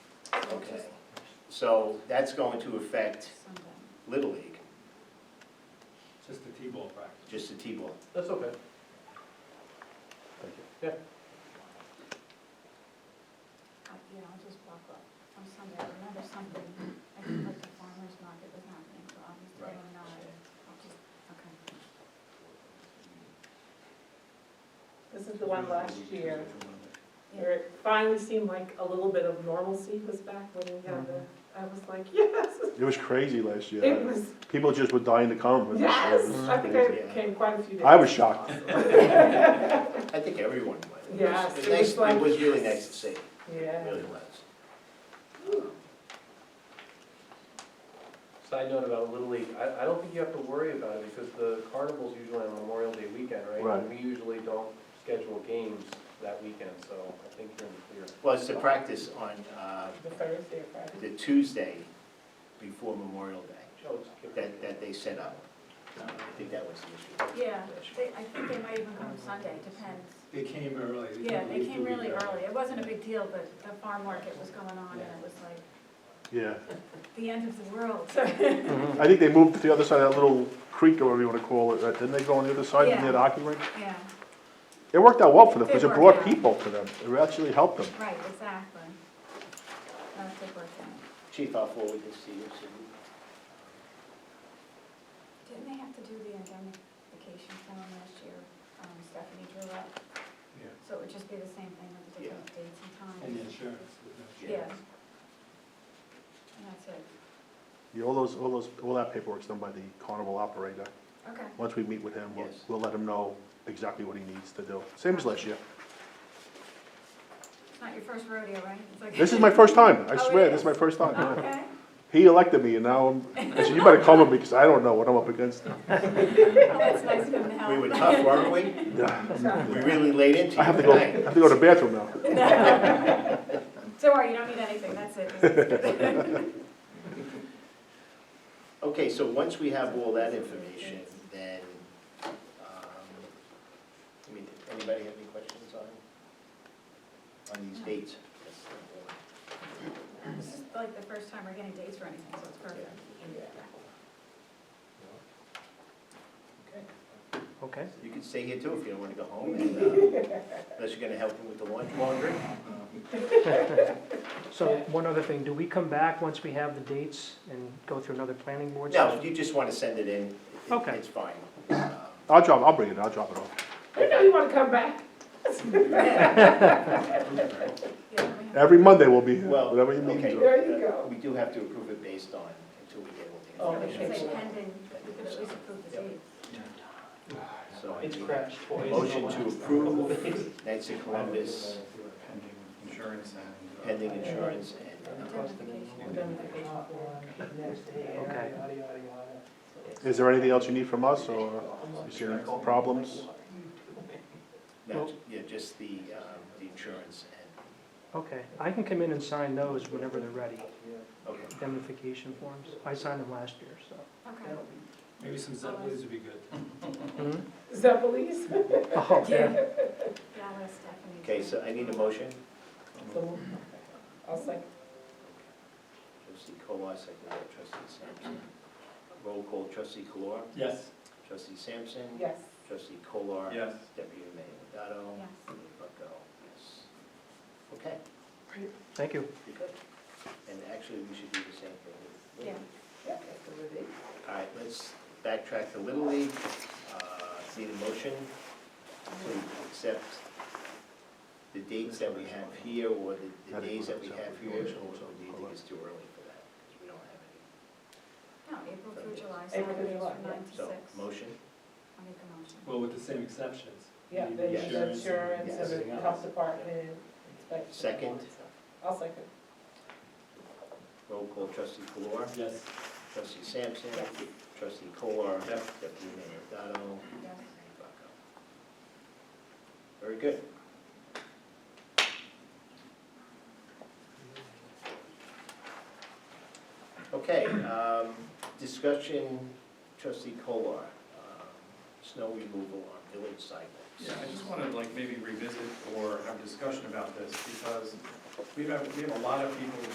Okay, so that's going to affect Little League, Just the T-ball practice. just the T-ball. That's okay. Yeah, I'll just block up on Sunday, I remember something, I think like the farmer's market was happening, so obviously Right. I'm not, I'll just, okay. This is the one last year, where it finally seemed like a little bit of normalcy was back when we had the, I was like, yes, It was crazy last it year. was, People just were dying to come. for this. It yes, was I think crazy. I came quite a few days. I was shocked. I think everyone went. Yes, was it was nice- like- It was really nice to see, it Yeah. really was. Side note about Little League, I, I don't think you have to worry about it because the carnival's usually on Memorial Day weekend, right? Right. And we usually don't schedule games that weekend, so I think you're in the clear. Well, it's the practice on uh, The Thursday or Friday. the Tuesday before Memorial Day Joe, it's good. that, that they set up. Uh, I think that was the issue. Yeah, they, I think they might even come Sunday, depends. They came early. Yeah, they leave the came really week early, it wasn't a big deal, but the farm market was going on and it was like Yeah. the end of the world. I think they moved to the other side of that little creek or whatever you want to call it. right? Didn't they go on the other side Yeah. near the hockey rink? Yeah, It worked out well for them It because it worked brought out. people to them. It actually helped them. right, exactly. That did work out. Chief, I'll forward this to you soon. Didn't they have to do the indemnification form last year, um, Stephanie drew up? Yeah. So it would just be the same thing with the different dates and times? And insurance. with no Yeah. insurance. And that's it, Yeah, all those, all those, all that paperwork's done by the carnival operator. okay. Once we meet with him, we'll, Yes. we'll let him know exactly what he needs to do. Same as last year. It's not your first rodeo, right? It's like- This is my first time. I Oh, it swear, this is my is? Oh, first time. yeah. Okay, He elected me and now I'm, I said, you better come with me because I don't know what I'm up against. Well, Oh, that's nice of him to help. We were tough, weren't we? We really laid into I have you to go, I tonight. have to go to the bathroom now. Don't worry, you don't need anything, that's it. Okay, so once we have all that information, then, um, I mean, anybody have any questions on, on these dates? This is like the first time we're getting dates for anything, so it's perfect. Okay. You can stay here too if you don't want to go home, and, uh, unless you're gonna help him with the laun- laundry. So one other thing, do we come back once we have the dates and go through another planning board? No, session? you just want to send it in. It- Okay. It's fine. Um, I'll drop, I'll bring it, I'll drop it off. I know you wanna come back. Yeah, we have- Every Monday we'll be here, Well, whatever you need. okay. to. There you go. We do have to approve it based on, until we get all Oh, the It's information. like pending, but we could at least approve the dates. So I It's need crashed a twice. motion to approve Knights of Columbus Pending insurance and. uh, pending insurance and, uh, Okay. Is there anything else you need from us or you see any problems? no, yeah, just the, um, the insurance and, Okay, I can come in and sign those whenever they're ready, okay. indemnification forms. I signed them last year, so. Okay. Maybe some Zeppelins would be good. Zeppelins. Oh, yeah. Yeah, I'll ask Stephanie. Okay, so I need a motion. I was like, Trustee Kolar, second by trustee Sampson. Roll call, trustee Kolar, Yes. trustee Sampson. yes. Trustee Kolar. Yes. Deputy Mayor Lovato. Yes. Mayor Bucko, yes. Okay, Thank you. you're good. And actually, we should do the same thing. with- Yeah. Yeah. All right, let's backtrack to Little League. Uh, Need a motion to accept the dates that we have here, or the- the days that we have here, or do you think it's too early for that? 'Cause we don't have any. No, April through July, so April through it's July, from nine to six. So, motion? I'll make a motion. Well, with the same exceptions. Yeah, Need the Yes. insurance and the Yes. health department inspection. Second. I'll second. Roll call, trustee Kolar, Yes. trustee Sampson, Yes. trustee Kolar, Yes. deputy mayor Dotto, Yes. Mayor Bucko. Very good. Okay, um, discussion, trustee Kolar, um, snow removal on village sidewalks. Yeah, I just want to like maybe revisit or have discussion about this because we've had, we have a lot of people